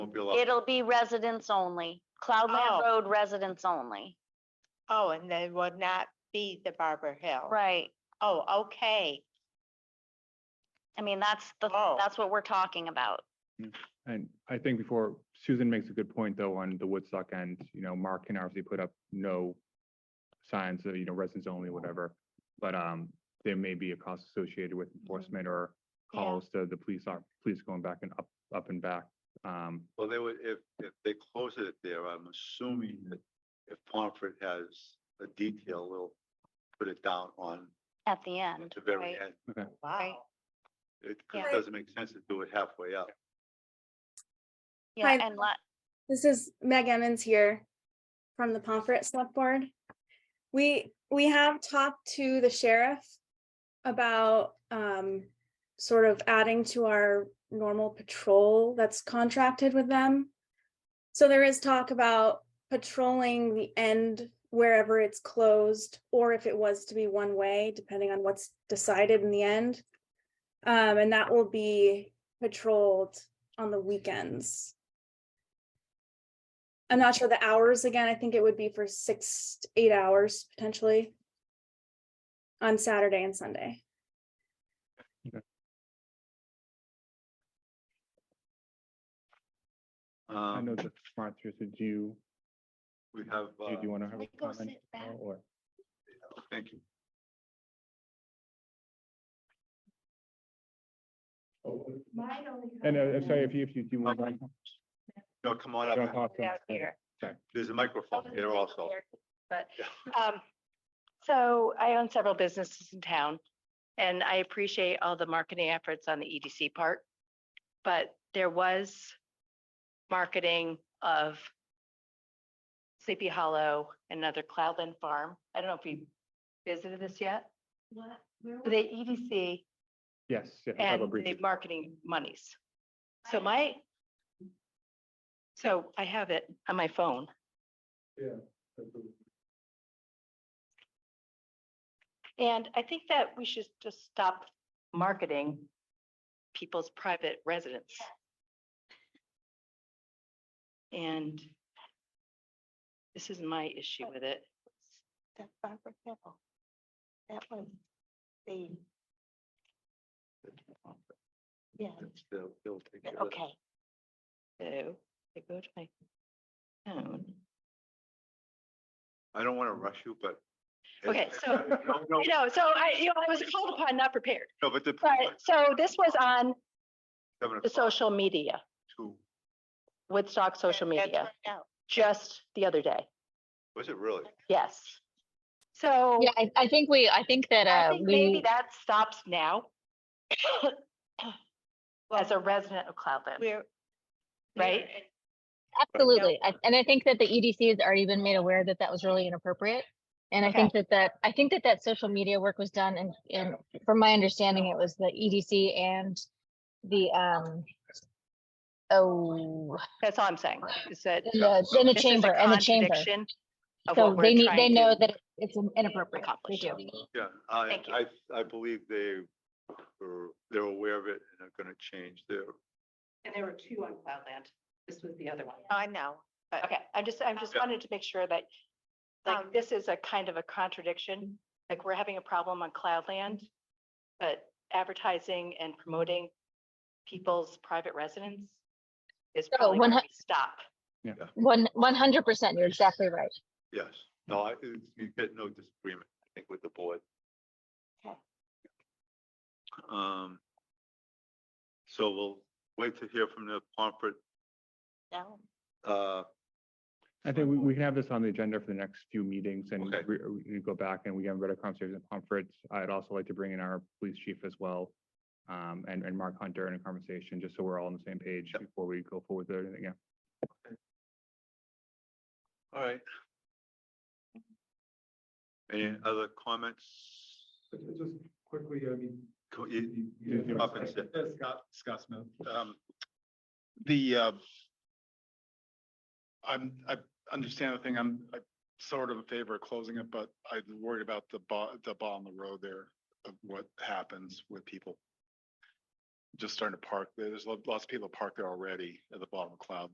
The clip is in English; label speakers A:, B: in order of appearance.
A: won't be allowed.
B: It'll be residents only, Cloudland
C: Oh.
B: Road residents only.
C: Oh, and they would not be the Barber Hill.
B: Right.
C: Oh, okay.
B: I mean, that's the,
C: Oh.
B: that's what we're talking about.
D: And I think before Susan makes a good point though on the Woodstock end, you know, Mark can obviously put up no signs, uh, you know, residents only, whatever. But um, there may be a cost associated with enforcement or
C: Mm-hmm. Yeah.
D: calls to the police, are police going back and up, up and back. Um,
A: Well, they would, if, if they close it there, I'm assuming that if Pomfret has a detail, they'll put it down on
B: At the end,
A: at the very
B: right.
A: end.
C: Wow.
A: It
B: Yeah.
A: doesn't make sense to do it halfway up.
B: yeah,
E: Hi.
B: and la-
E: This is Meg Emmons here from the Pomfret Select Board. We, we have talked to the sheriff about um, sort of adding to our normal patrol that's contracted with them. So there is talk about patrolling the end wherever it's closed, or if it was to be one way, depending on what's decided in the end. Um, And that will be patrolled on the weekends. I'm not sure the hours again. I think it would be for six, to eight hours potentially. On Saturday and Sunday.
D: I know
A: Um,
D: that Martha, so do you,
A: we have,
D: do
A: uh,
D: you want to have
C: we
D: a
C: go
D: comment?
C: sit back?
D: now, Or,
A: thank you.
D: and uh, I'm sorry, if you, if you do want.
A: Okay. No, come on
D: Don't
A: up.
D: talk to
C: Out
D: us.
C: here.
A: There's a microphone here also.
C: But, um, so I own several businesses in town and I appreciate all the marketing efforts on the EDC part. But there was marketing of Sleepy Hollow, another Cloudland Farm. I don't know if you visited this yet. What? The EDC
D: Yes. yes, we'll have a
C: and
D: brief-
C: the marketing monies. So my, so I have it on my phone. And I think that we should just stop marketing people's private residence. And this is my issue with it.
F: That Barbara Hill. That was the, yeah,
A: They'll- they'll take care of it.
F: okay.
C: So I go to my phone.
A: I don't want to rush you, but.
C: Okay, so-
A: No, no,
C: You know, so I, you know, I was called upon, not prepared.
A: no, but the.
C: But so this was on
A: seven oh
C: the
A: o'clock
C: social media,
A: to-
C: Woodstock social
F: that- that
C: media,
F: turned out.
C: just the other day.
A: Was it really?
C: Yes. So
G: Yeah, I, I think we, I think that,
C: I
G: uh,
C: think maybe
G: we,
C: that stops now. As a resident of Cloudland,
F: We're.
C: right?
G: absolutely. I- And I think that the EDC has already been made aware that that was really inappropriate. And I
C: Okay.
G: think that that, I think that that social media work was done and, and from my understanding, it was the EDC and the, um, oh,
C: That's all I'm saying, is that.
G: and the, and the
C: this is a
G: chamber, and the chamber.
C: contradiction Of
G: So
C: what we're
G: they need, they
C: trying
G: know
C: to.
G: that it's inappropriate. They
C: accomplish.
G: do.
A: Yeah, I,
C: Thank you.
A: I, I believe they were, they're aware of it and are going to change their,
C: And there were two on Cloudland. This was the other one.
F: I know, but
C: Uh, Okay, I just, I just
A: Yeah.
C: wanted to make sure that, like,
F: Um,
C: this is a kind of a contradiction. Like, we're having a problem on Cloudland, but advertising and promoting people's private residence is
G: So
C: probably
G: one
C: where
G: hu-
C: we stop.
G: One, one hundred percent, you're exactly right.
A: yes. No, I, you get no disagreement, I think, with the board.
F: Okay.
A: Um, so we'll wait to hear from the Pomfret,
F: no,
A: uh,
D: I think we, we can have this on the agenda for the next few meetings and
A: Okay.
D: we, we go back and we have a better conversation at Pomfret. I'd also like to bring in our police chief as well. Um, and, and Mark Hunter in a conversation, just so we're all on the same page
A: Yep.
D: before we go forward with anything. Yeah.
A: all right. Any other comments?
H: Mm-hmm. Just quickly, I mean.
A: Co- you-
H: you-
A: you
H: you-
A: come up and sit.
H: Uh, Scott, Scott Smith. Um,
I: The, uh, I'm, I understand the thing, I'm, i sort of in favor of closing it, but I'm worried about the ball, the ball on the road there of what happens with people. Just starting to park, there. there's lo- lots of people parked there already at the bottom of Cloud